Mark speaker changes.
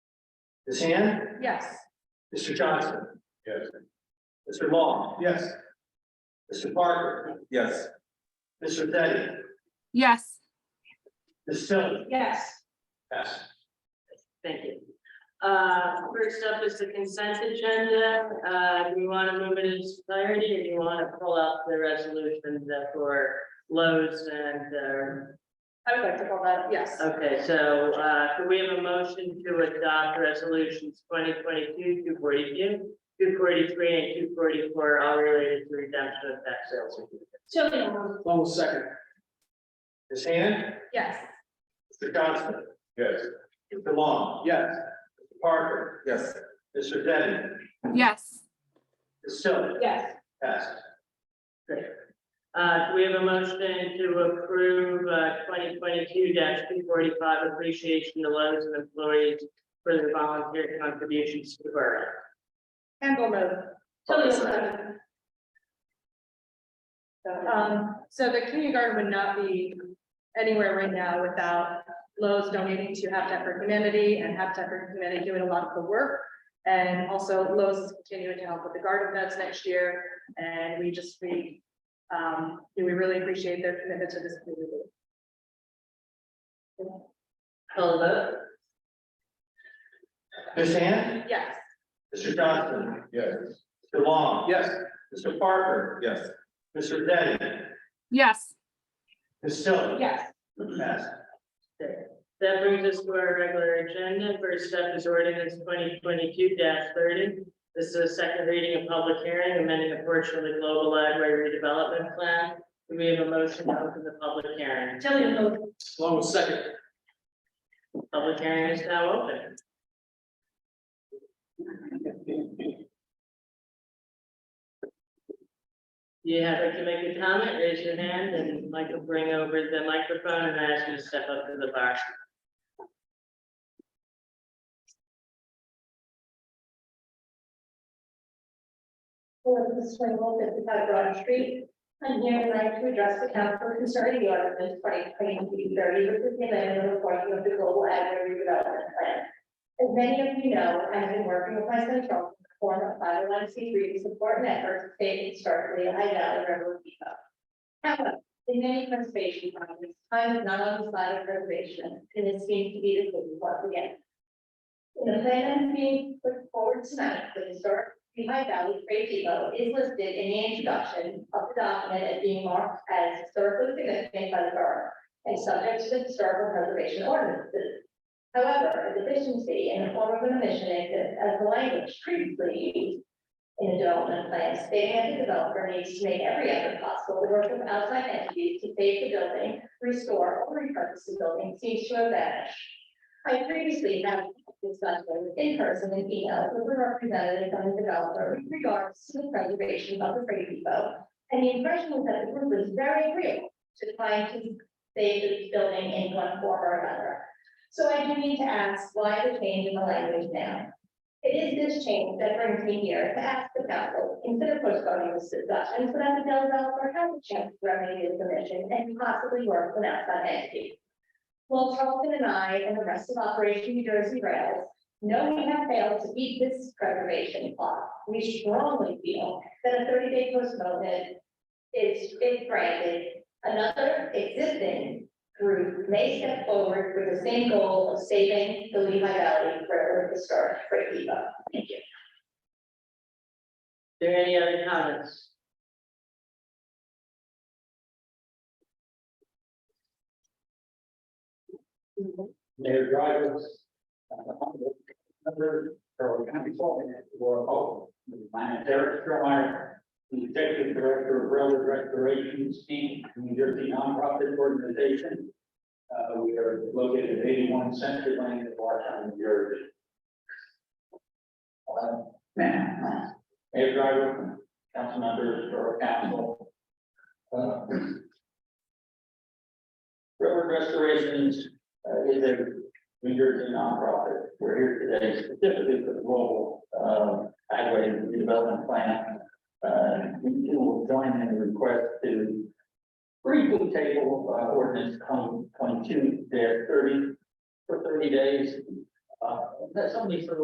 Speaker 1: Ms. Hand?
Speaker 2: Yes.
Speaker 1: Mr. Johnson?
Speaker 3: Yes.
Speaker 1: Mr. Long?
Speaker 3: Yes.
Speaker 1: Mr. Parker?
Speaker 3: Yes.
Speaker 1: Mr. Teddy?
Speaker 4: yes,
Speaker 1: Ms. Tillman?
Speaker 2: Yes.
Speaker 1: Yes.
Speaker 5: Thank you. Uh, first up is the consent agenda. Uh, do you want to move it in its entirety or do you want to pull out the resolutions that for Lowe's and,
Speaker 2: I would like to call that, yes.
Speaker 5: uh, okay, so, uh, can we have a motion to adopt resolutions twenty twenty-two, two forty-two, two forty-three, and two forty-four, all related to redemption of tax sales?
Speaker 2: Chilling,
Speaker 1: Long second. Ms. Hand?
Speaker 2: yes.
Speaker 1: Mr. Johnson?
Speaker 3: Yes.
Speaker 1: Mr. Long?
Speaker 3: Yes.
Speaker 1: Mr. Parker?
Speaker 3: Yes.
Speaker 1: Mr. Teddy?
Speaker 4: yes.
Speaker 1: Ms. Tillman?
Speaker 2: Yes.
Speaker 1: Yes.
Speaker 5: Great. Uh, do we have a motion to approve, uh, twenty twenty-two two forty-five appreciation to Lowe's and employees for their volunteer contributions to the borough.
Speaker 2: Campbell move. Chilling, second. Um, so the kindergarten would not be anywhere right now without Lowe's donating to Habitat for Humanity and Habitat for Humanity doing a lot of the work. And also Lowe's is continuing to help with the garden beds next year, and we just, we, um, we really appreciate their commitment to this community.
Speaker 5: Call the vote.
Speaker 1: Ms. Hand?
Speaker 2: Yes.
Speaker 1: Mr. Johnson?
Speaker 3: Yes.
Speaker 1: Mr. Long?
Speaker 3: Yes.
Speaker 1: Mr. Parker?
Speaker 3: Yes.
Speaker 1: Mr. Teddy?
Speaker 4: Yes,
Speaker 1: Ms. Tillman?
Speaker 2: Yes.
Speaker 1: Yes.
Speaker 5: That brings us to our regular agenda. First up is ordinance twenty twenty-two thirty. This is a second reading of public hearing, amending a portion of the global library redevelopment plan. Do we have a motion to open the public hearing?
Speaker 2: Chilling, move.
Speaker 3: Slow second.
Speaker 5: Public hearing is now open. You have to make a comment, raise your hand, and Mike will bring over the microphone and ask you to step up to the bar.
Speaker 6: for the swing vote at the Town Broad Street. I'm here tonight to address the council concerning the ordinance twenty twenty-two thirty, which is the amendment and reporting of the global agri redevelopment plan. As many of you know, I've been working with my central form of five oh one C three to support networks staying historically in High Valley River Depot. However, in many conservation projects, time is not on the side of preservation, and it seems to be the case once again. In the plan being put forward tonight, the historic the High Valley Freight Depot is listed in the introduction of the document as being marked as historically significant by the borough and subject to the historical preservation ordinances. However, a deficiency in the form of an omission exists as the language previously used in the development plan stating that the developer needs to make every effort possible to work with outside entities to save the building, restore or repurpose the building seems to have vanished. I previously have discussed with in person and email with the representative from the developer with regards to the preservation of the Brady Depot. And the impression was that the group was very agreeable to trying to save the building in one form or another. So I do need to ask why the change in the language now? It is this change that brings me here to ask the council, consider postponing this discussion so that the developer has a chance to remedy his omission and possibly work with an outside entity. Well, Charlton and I and the rest of Operation New Jersey Rails know we have failed to beat this preservation clock. We strongly feel that a thirty-day postponement is, if granted, another existing group may step forward with the same goal of saving the Lehigh Valley Railroad Historic Freight Depot. Thank you.
Speaker 5: There any other comments?
Speaker 3: Mayor Drivers. Number, or county consultant, or all, my Derek Stromeyer, the executive director of railroad restorations, Inc., New Jersey nonprofit organization. Uh, we are located at eighty-one Center Lane in Washington, New Jersey. Uh, Mayor Driver, council members, or council. uh, Railroad restorations uh, is a New Jersey nonprofit. We're here today specifically for the global, uh, highway redevelopment plan. Uh, we do will join in the request to briefly table, uh, ordinance twenty-two, there thirty, for thirty days. Uh, that's only for